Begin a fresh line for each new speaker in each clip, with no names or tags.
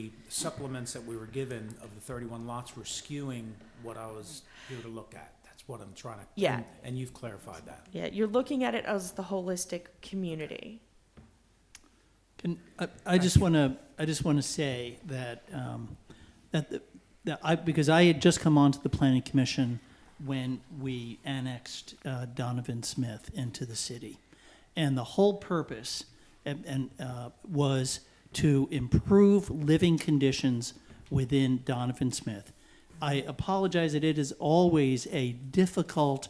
the supplements that we were given of the 31 lots were skewing what I was here to look at. That's what I'm trying to.
Yeah.
And you've clarified that.
Yeah, you're looking at it as the holistic community.
Can, I, I just want to, I just want to say that, um, that, the- that I, because I had just come onto the planning commission when we annexed uh, Donovan Smith into the city. And the whole purpose and, and, uh, was to improve living conditions within Donovan Smith. I apologize that it is always a difficult,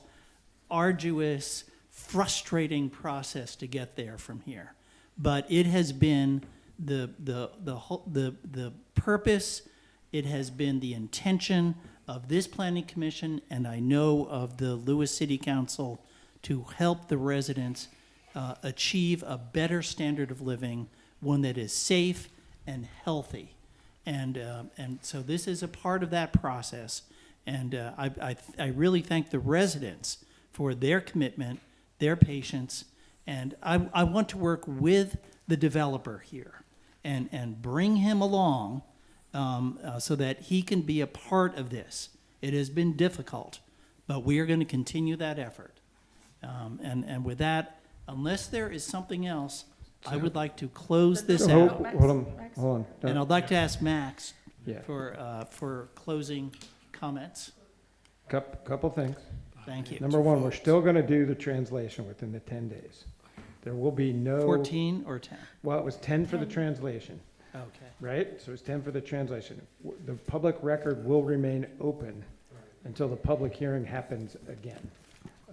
arduous, frustrating process to get there from here. But it has been the the the whole the the purpose. It has been the intention of this planning commission, and I know of the Lewis City Council, to help the residents uh, achieve a better standard of living, one that is safe and healthy. And, uh, and so this is a part of that process. And uh, I, I, I really thank the residents for their commitment, their patience. And I, I want to work with the developer here and, and bring him along um, uh, so that he can be a part of this. It has been difficult, but we are going to continue that effort. Um, and, and with that, unless there is something else, I would like to close this
So
out.
Hold hold on, hold
And
on.
I'd like to ask Max
Yeah,
for, uh, for closing comments.
couple, couple things.
Thank you.
Number one, we're still gonna do the translation within the ten days. There will be no,
14 or 10?
well, it was ten for the translation,
Okay.
right? So it's ten for the translation. W- The public record will remain open until the public hearing happens again.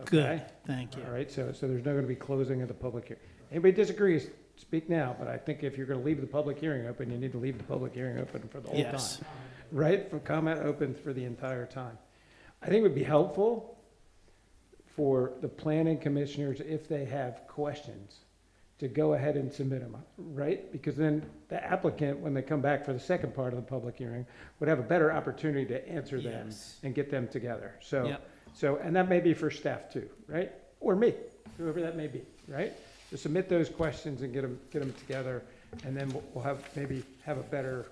Good,
Okay?
thank
All
you.
right, so, so there's not gonna be closing of the public hearing. Anybody disagrees, speak now, but I think if you're gonna leave the public hearing open, you need to leave the public hearing open for the whole time.
Yes.
right, for comment open for the entire time. I think it would be helpful for the planning commissioners, if they have questions, to go ahead and submit them, right? Because then the applicant, when they come back for the second part of the public hearing, would have a better opportunity to answer them
Yes.
and get them together, so.
Yep.
So, and that may be for staff too, right? Or me, whoever that may be, right? To submit those questions and get them, get them together, and then we'll- we'll have, maybe have a better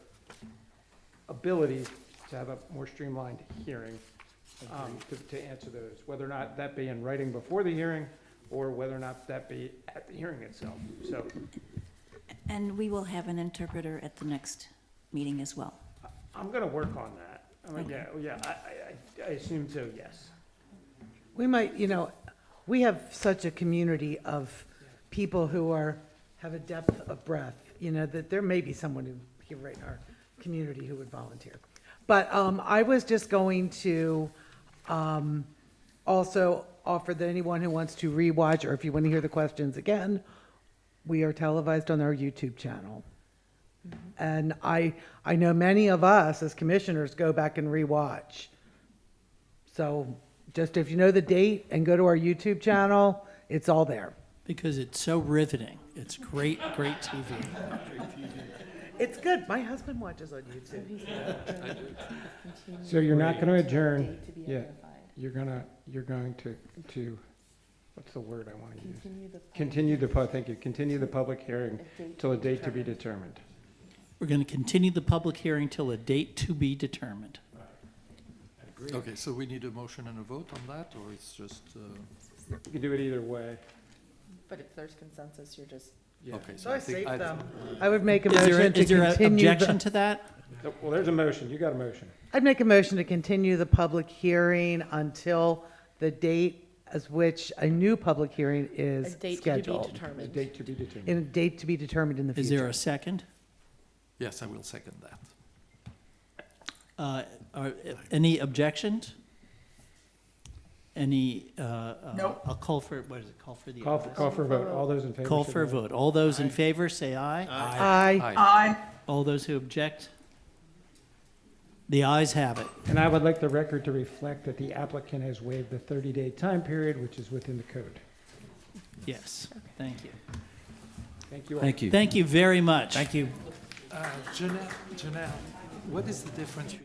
ability to have a more streamlined hearing um, to, to answer those, whether or not that be in writing before the hearing, or whether or not that be at the hearing itself. So
And we will have an interpreter at the next meeting as well.
I'm gonna work on that. I'm gonna- yeah, yeah, I- I, I, I assume so, yes.
We might, you know, we have such a community of people who are, have a depth of breath, you know, that there may be someone who, here right in our community who would volunteer. But um, I was just going to um, also offer that anyone who wants to rewatch, or if you want to hear the questions again, we are televised on our YouTube channel. And I, I know many of us as commissioners go back and rewatch. So just if you know the date and go to our YouTube channel, it's all there.
Because it's so riveting. It's great, great TV.
It's good. My husband watches on YouTube.
So you're not gonna adjourn, yeah, you're gonna, you're going to, to, what's the word I wanna use? Continue the, pu- thank you, continue the public hearing till a date to be determined.
We're going to continue the public hearing till a date to be determined.
Okay, so we need a motion and a vote on that, or it's just, uh,
You can do it either way.
But if there's consensus, you're just,
Yeah.
okay,
So
so
I
I think.
saved
I-
them. I would make a
Is there,
motion to
is there an
continue.
objection
the-
to that?
So- Oh, Well, there's a motion, you got a motion.
I'd make a motion to continue the public hearing until the date as which a new public hearing
a
is
date to be
scheduled.
A
determined.
date to be determined.
In a date to be determined in the
Is there
future.
a second?
Yes, I will second that.
Uh, are, any objections? Any, uh, uh, I'll call for, what is it, call for the.
Call for, call for a vote, all those in favor?
Call
say
for a
aye.
vote. All those in favor, say aye.
Aye.
Aye.
All those who object? The ayes have it.
And I would like the record to reflect that the applicant has waived the 30-day time period, which is within the code.
Yes, thank you.
Thank you all.
Thank you very much. Thank you.
Uh, Janelle, Janelle, what is the difference?